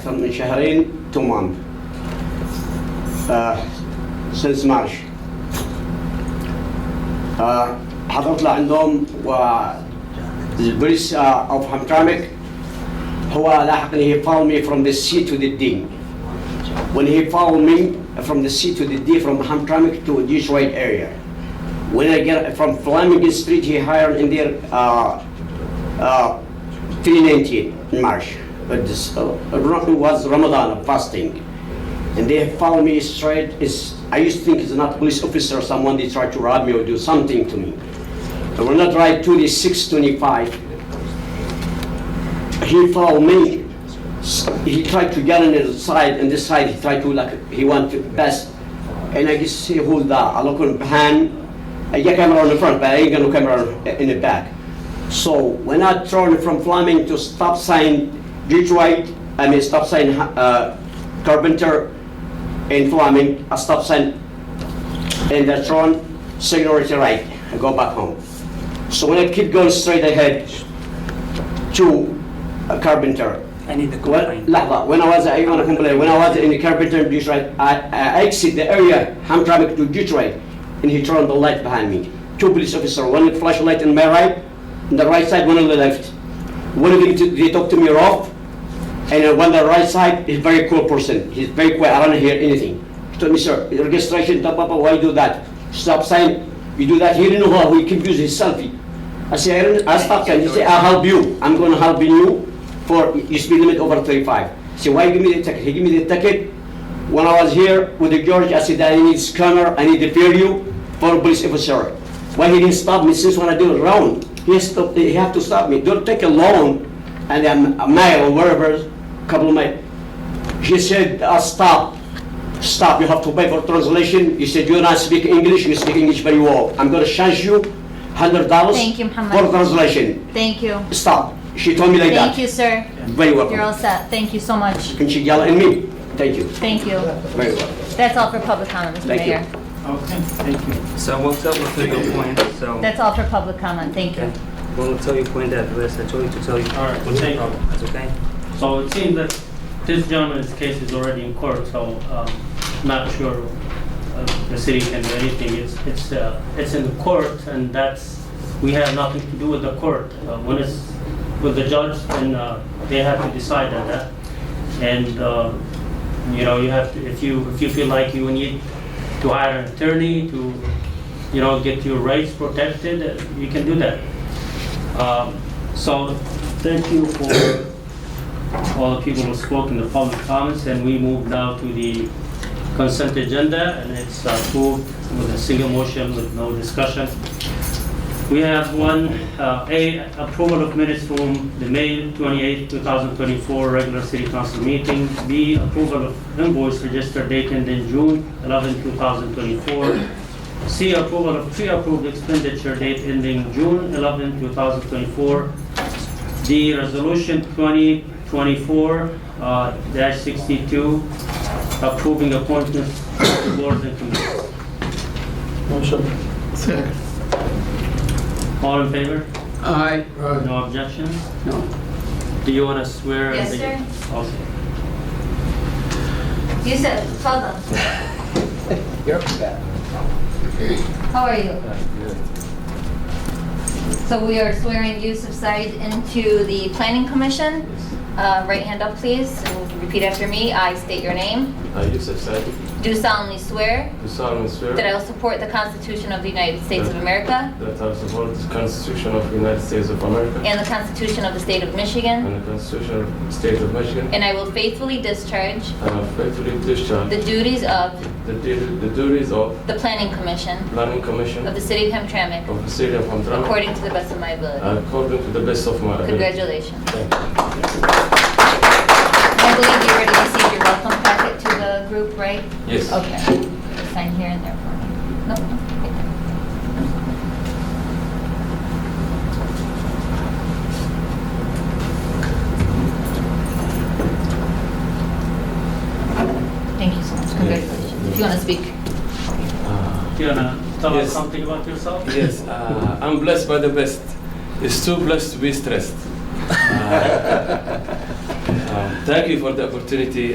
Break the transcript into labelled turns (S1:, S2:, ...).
S1: from من شهرين to month uh, since March uh, هتطلع عندهم والبوليس uh, of Hamtramck هو لاحقني he found me from the C to the D when he found me from the C to the D from Hamtramck to Detroit area when I get from Flemington Street he hired in there uh, uh, 319 in March. But this, uh, Ram- was Ramadan fasting, and they found me straight. Is I used to think it's not police officer or someone they tried to rob me or do something to me. But when I tried 26, 25, he found me. S- He tried to get on the side, and this side he tried to like he went to pass, and I guess he hold the I look on behind. I get camera on the front, but I ain't got no camera in the back. So when I turn from Fleming to stop sign Detroit, I mean stop sign uh, Carpenter in Fleming, I stop sign and I turn signal to right, I go back home. So when I keep going straight ahead to uh, Carpenter,
S2: I need the
S1: well,
S2: complaint.
S1: لحظة when I was I want to complain when I was in Carpenter Detroit I, I exit the area Hamtramck to Detroit and he turned the light behind me two police officer one flashlight in my right on the right side one on the left one of them t- they talk to me rough and uh, on the right side he's very cool person he's very quiet I don't hear anything he told me sir registration blah, blah, blah, why you do that stop sign you do that he didn't know how he confused his selfie I say I, don't, I stop sign he say I'll help you I'm going to help you for you speed limit over 35. So why give me the ticket? He give me the ticket. When I was here with the George, I said I need scanner, I need to fear you for police officer. Why he didn't stop me since when I do it wrong? He stopped, he have to stop me. Don't take a loan and then a mile or wherever, couple mile. He said, uh, stop, stop, you have to pay for translation. He said, you not speak English, you speak English very well. I'm gonna charge you hundred dollars.
S3: Thank you, Muhammad.
S1: For translation,
S3: Thank you.
S1: stop. She told me like that.
S3: Thank you, sir.
S1: Very welcome.
S3: You're all set. Thank you so much.
S1: Can she yell at me? Thank you.
S3: Thank you.
S1: Very well.
S3: That's all for public comment, Mr.
S1: Thank you.
S3: Mayor.
S2: Okay, thank you.
S4: So what's up with your point? So
S3: That's all for public comment. Thank you.
S4: okay. When we tell you point that list, I told you to tell you.
S5: All right, well,
S4: No
S5: thank you.
S4: problem. That's okay.
S5: So it seems that this gentleman's case is already in court, so um, not sure uh, the city can do anything. It's, it's, uh, it's in the court, and that's, we have nothing to do with the court. Uh, When it's with the judge, then uh, they have to decide on that. And, uh, you know, you have, to if you, if you feel like you need to hire an attorney to, you know, get your rights protected, uh, you can do that. Um, So, thank you for all the people who spoke in the public comments, and we move now to the consent agenda, and it's uh, approved with a single motion with no discussion. We have one, uh, A, approval of minutes from the May 28, 2024 regular city council meeting. B, approval of invoice registered date ending June 11, 2024. C, approval of pre-approved expenditure date ending June 11, 2024. The resolution 2024-62 approving appointments to boards and committees.
S6: Second.
S5: All in favor?
S6: Aye.
S5: No objections?
S6: No.
S5: Do you want to swear?
S3: Yes,
S5: the- Okay.
S3: You said, tell them. How are you?
S1: Uh,
S3: So we are swearing you subside into the planning commission. Uh, Right hand up, please. and Repeat after me. I state your name.
S7: I, Yusuf Sadi,
S3: Do solemnly swear
S7: do solemnly swear
S3: that I
S7: that
S3: will support the Constitution of the United States of America
S7: I will support the Constitution of the United States of America
S3: and the Constitution of the State of Michigan.
S7: and the Constitution of the State of Michigan,
S3: And I will faithfully discharge
S7: and I faithfully discharge
S3: the duties of
S7: the du- the duties of
S3: the Planning Commission
S7: Planning Commission
S3: of the City of Hamtramck
S7: of the City of Hamtramck
S3: according to the best of my ability.
S7: according to the best of my ability.
S3: Congratulations.
S7: Thank you.
S3: I believe you already received your welcome packet to the group, right?
S7: Yes.
S3: Okay. Sign here and there for me. No, no, right there. Thank you so much. Congratulations. If you want to speak.
S7: Uh,
S5: Do you want to tell us
S7: Yes.
S5: something about yourself?
S7: Yes, uh, I'm blessed by the best. It's too blessed to be stressed. Uh, Um, thank Ah. you for the opportunity